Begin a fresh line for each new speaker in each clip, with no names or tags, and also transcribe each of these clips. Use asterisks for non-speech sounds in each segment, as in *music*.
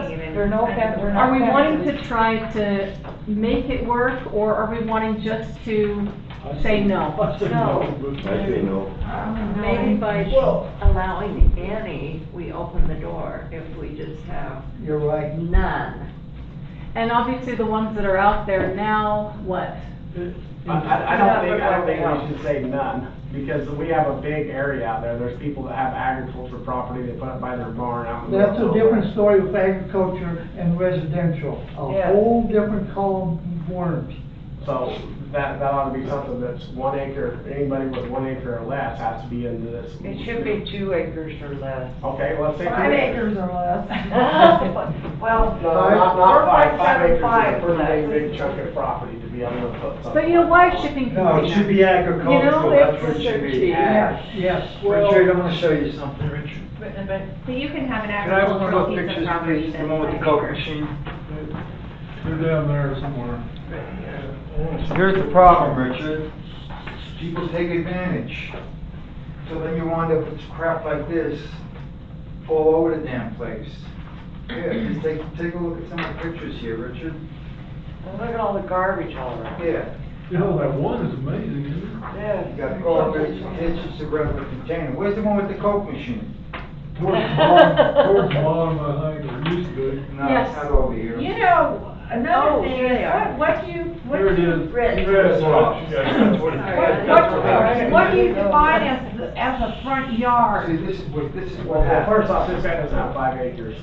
There are no offense, we're not.
Are we wanting
offensive.
to try to make it work, or are we wanting just to say no?
I said
No.
I say no.
Maybe by
Well-
allowing any, we open the door if we just have
You're right.
none.
And obviously, the ones that are out there now, what?
I, I I don't think, I don't think we should say none, because we have a big area out there, there's people that have agricultural property, they put up by their barn out in the.
That's
middle
a
of nowhere.
different story with agriculture and residential, a
Yeah.
whole different column of worms.
So that, that ought to be something that's one acre, anybody with one acre or less has to be into this.
It should be two acres or
*laughs*
less.
Okay, let's say. two
Five acres
*laughs*
or less. *laughs*
Well,
No, not, not five, five acres
Five,
is a pretty
five.
big, big chunk of property to be able to put something.
But you know, why shipping
No, Oh, it should be agricultural, that's what it should be.
Yes, yes.
Richard, I'm gonna show you something, Richard.
So you can have an
Can I have one of
agricultural
those
piece of
pictures,
property
please,
that's
the one with
five
the Coke
acres.
machine?
They're down there somewhere.
Here's the problem, Richard. People take advantage. So then you wind up with crap like this all over the damn place. Yeah, just take, take a look at some of the pictures here, Richard.
Well, Look at all the garbage all around.
Yeah,
You know, that one is amazing, isn't
Yeah.
you got garbage, ditches, a regular container. Where's the one with the Coke machine?
it? Towards the bottom, towards the bottom, I think, or used to be.
No, it's not over here.
You know,
Oh, there
another thing,
they
is,
are.
what, what do you, what
There it
do you,
is.
Rick,
Red box, yeah, that's what it-
what, what, what do you define as, the- as a front yard?
See, this is what, this is
Well,
what
well,
happens.
first off, this guy doesn't have five acres,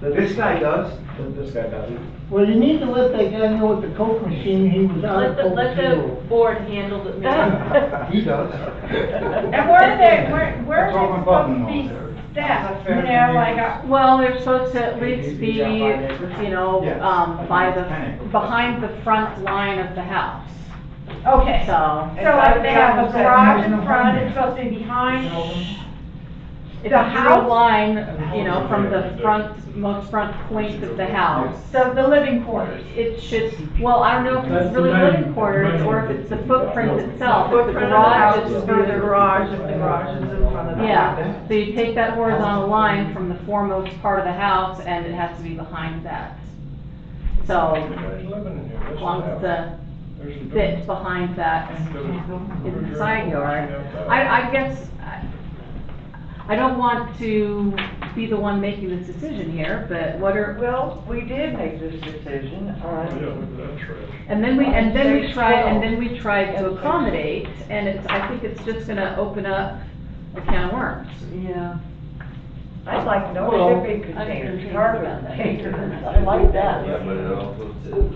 This guy does.
Th- this guy doesn't.
Well, you need to let that guy know with the Coke machine, he was out
Let
of
the,
Coke
let
Zero.
the board handle
*laughs*
the meeting.
*laughs* He does.
And where are they, where, where
That's all my problem
are
on
they supposed
there.
to be set, you know, like, uh,
Well, they're supposed to at least be,
Maybe down by the acres?
you know,
Yes.
um, by the,
Panic.
behind the front line of the house,
uh, okay. So
so.
like they have a garage in front, it's supposed to be behind,
It's
The
a
house-
house line, you know, from the front, most front point of the house.
so the living quarters.
It should, well, I don't know if
That's
it's
the
really
main-
living quarters
main-
or if it's the footprint itself, if the
Footprint of the house
garage
is
is
for the
further.
garage, if the garage is in front of the house.
Yeah, so you take that horizontal line from the foremost part of the house and it has to be behind that. So,
Everybody's living in here,
as
that's
long
what
as
happens.
the
There's a
bit behind that
building.
is the side yard. I, I guess, I- I don't want to be the one making this decision here, but what are,
Well, we did make this decision
Yeah,
on
look at that trash.
And then we, and then we
There's
tried, and
twelve.
then we tried to accommodate, and it's, I think it's just gonna open up a can of worms.
Yeah. I'd like
Well,
no shipping
I think
containers,
there's
garbage
about that.
containers, I like
Yeah,
that.
but it also says.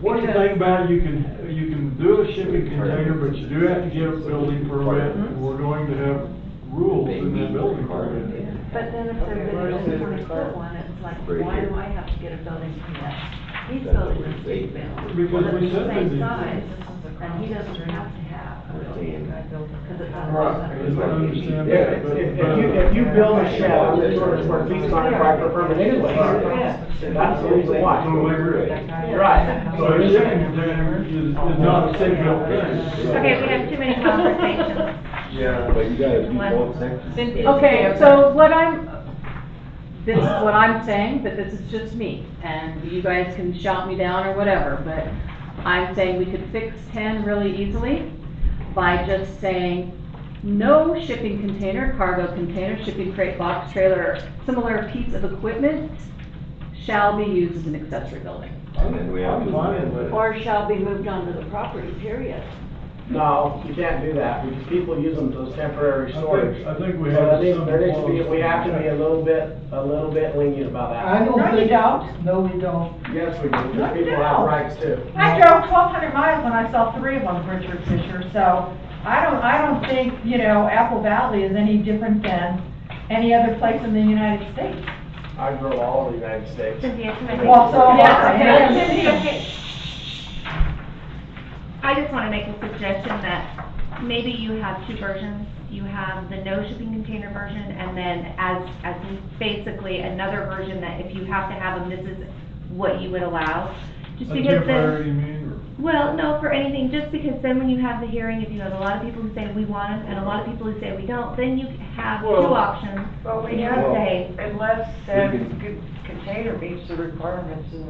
One thing about it, you can, you can do a shipping container, but you do have to get a building permit,
Mm-hmm.
and we're going to have rules in that building permit.
But then if they're gonna just wanna put one, it's like,
Right
why
here.
do I have to get a building permit? He's
That's what
building
we
a
say.
big building.
Because we
It's the
said they
Same
did.
size, and he doesn't have to have a
We're
building.
saying-
Cause it's
Right,
not.
as I understand
Yeah,
that,
If,
but.
if you, if you build a shed, on this sort of square feet, it's not required for permit anyway. That's the reason why. You're right.
So a shipping container is, is not a city built thing.
Okay, we have too
*laughs*
many conversations.
Yeah, but you gotta do one section.
Okay, so what I'm, this is what I'm saying, but this is just me, and you guys can shout me down or whatever, but I'm saying we could fix ten really easily by just saying, no shipping container, cargo container, shipping crate, box trailer, similar piece of equipment shall be used as an accessory building.
And then we have to.
I'm fine with it.
Or shall be moved onto the property, period.
No, you can't do that, because people use them as temporary
I
storage.
think- I think we
So
have
there needs-
some
There needs to be,
clause.
we have to be a little bit, a little bit lenient about
I
that.
don't
No, you
think.
don't.
No, we don't.
Yes, we do,
No,
because
you
people have
don't.
rights too.
I drove twelve hundred miles when I saw three of them, Richard Fisher, so I don't, I don't think, you know, Apple Valley is any different than any other place in the United States.
I grow all over the United States.
Cynthia, can I-
Well, so,
Yeah, okay.
yeah,
Okay. I just want to make a suggestion that maybe you have two versions. You have the no shipping container version and then as, as basically another version that if you have to have them, this is what you would allow. Just
A
because then,
temporary, you mean,
well, no, for anything, just because then when you have the hearing, if you have a lot of people who say we want them and a lot of people who say we don't, then you have two
Well-
options.
But
And
we
you
have,
say,
unless that
We can-
could *laughs* container meets the requirements in